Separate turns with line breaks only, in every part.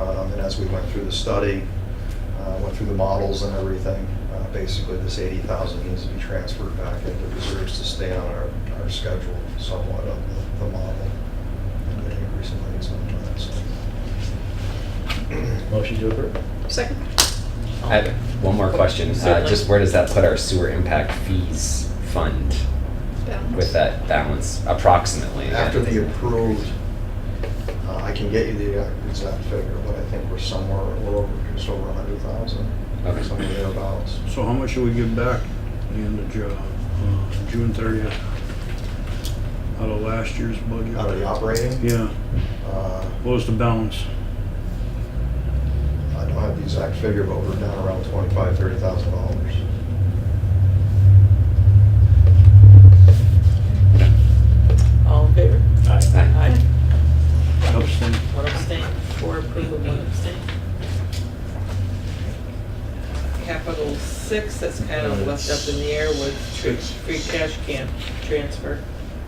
Um, as we went through the study, uh, went through the models and everything, uh, basically this 80,000 needs to be transferred back into reserves to stay on our, our schedule somewhat of the- the model. And an increase in rates on that, so.
Motion to approve.
Second.
I have one more question. Uh,
Certainly.
just where does that put our sewer impact fees fund
Balance.
with that balance approximately?
After the approved, uh, I can get you the exact figure, but I think we're somewhere, a little over, just over 100,000,
Okay.
somewhere thereabouts.
So how much should we give back at the end of Ju- uh, June thirtieth? Out of last year's budget?
Out of the operating,
Yeah,
uh,
what was the balance?
I don't have the exact figure, but we're down around twenty-five, thirty thousand dollars.
All in favor?
Aye.
Aye.
Upstate,
One abstain, four approval, one abstain. Capital six, that's kind of left up in the air with tr- free cash can transfer.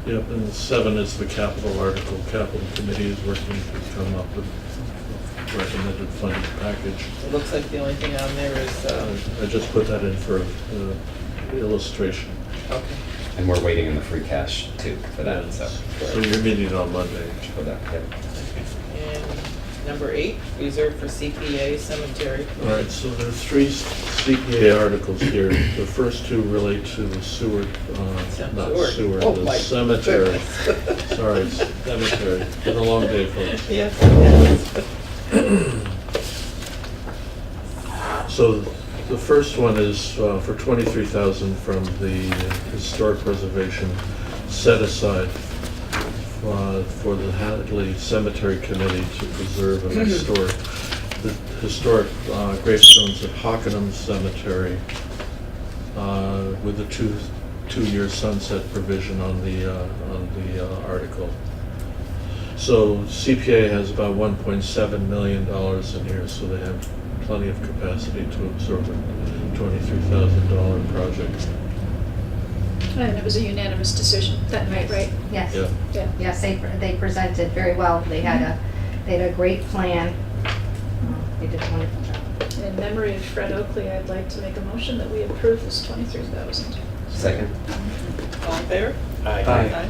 Yep, and seven is the capital article. Capital committee is working to come up with a recommended funding package. Uh,
It looks like the only thing on there is, um,
I just put that in for uh, illustration.
okay.
And we're waiting in the free cash too for that, so.
So you're meeting on Monday.
for that, yep.
And number eight, reserved for CPA cemetery.
All right, so there are three CPA articles here. The first two relate to the sewer, uh, not
Cemetery.
sewer,
Oh my
the cemetery.
goodness.
Sorry, cemetery. It's Been a long day, folks.
Yes, it has.
So the first one is uh, for 23,000 from the historic preservation set aside uh, for the Hadley Cemetery Committee to preserve and restore the historic uh, gravestones at Hockenham Cemetery uh, with a two, two-year sunset provision on the, uh, on the uh, article. So CPA has about one point seven million dollars in here, so they have plenty of capacity to absorb a twenty-three thousand dollar project.
And it was a unanimous decision that night, right?
Yeah,
Yes,
Yeah.
yes, they, they presented very well. They had a, they had a great plan. They did a wonderful job.
And in memory of Fred Oakley, I'd like to make a motion that we approve this twenty-three thousand.
Second?
All in favor?
Aye.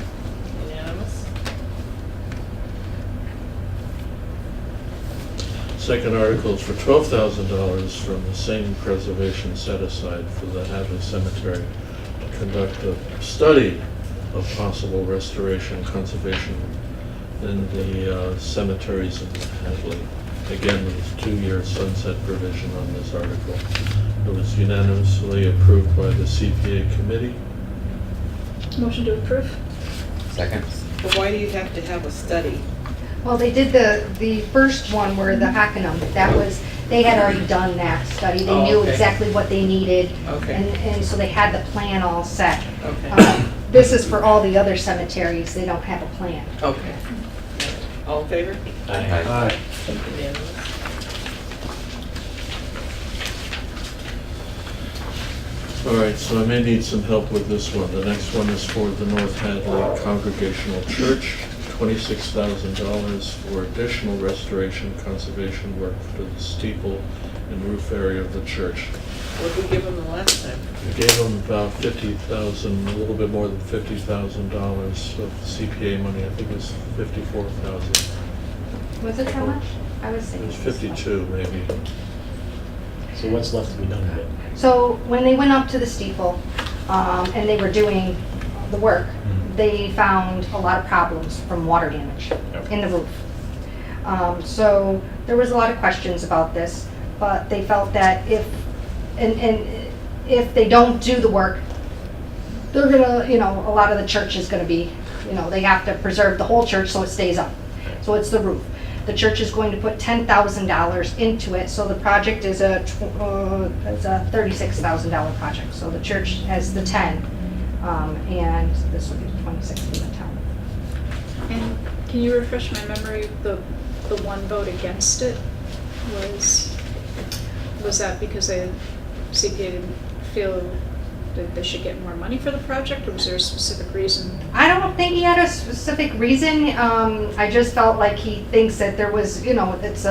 Unanimous?
second article is for twelve thousand dollars from the same preservation set aside for the Hadley Cemetery to conduct a study of possible restoration, conservation in the uh, cemeteries in Hadley. Again, with two-year sunset provision on this article. It was unanimously approved by the CPA committee.
Motion to approve?
Second?
But why do you have to have a study?
Well, they did the, the first one where the Hockenham, that was, they had already done that study. They
Oh,
knew
okay.
exactly what they needed.
Okay.
And, and so they had the plan all set.
Okay.
Um, This is for all the other cemeteries. They don't have a plan.
Okay. All in favor?
Aye.
Unanimous?
All right, so I may need some help with this one. The next one is for the North Hadley Congregational Church, twenty-six thousand dollars for additional restoration conservation work for the steeple and roof area of the church.
What did we give them the last time?
We gave them about fifty thousand, a little bit more than fifty thousand dollars of CPA money. I think it was fifty-four thousand.
Was it how much? I was
It
saying.
was fifty-two, maybe.
So what's left to be done with it?
So when they went up to the steeple um, and they were doing the work,
Mm-hmm.
they found a lot of problems from water damage in the roof. Um, So there was a lot of questions about this, but they felt that if, and, and if they don't do the work, they're gonna, you know, a lot of the church is gonna be, you know, they have to preserve the whole church so it stays up. So it's the roof. The church is going to put ten thousand dollars into it, so the project is a, tw- uh, it's a thirty-six thousand dollar project. So the church has the ten, um, and this will be the twenty-six from the town.
And can you refresh my memory, the, the one vote against it was, was that because they, CPA didn't feel that they should get more money for the project, or was there a specific reason?
I don't think he had a specific reason, um, I just felt like he thinks that there was, you know, it's a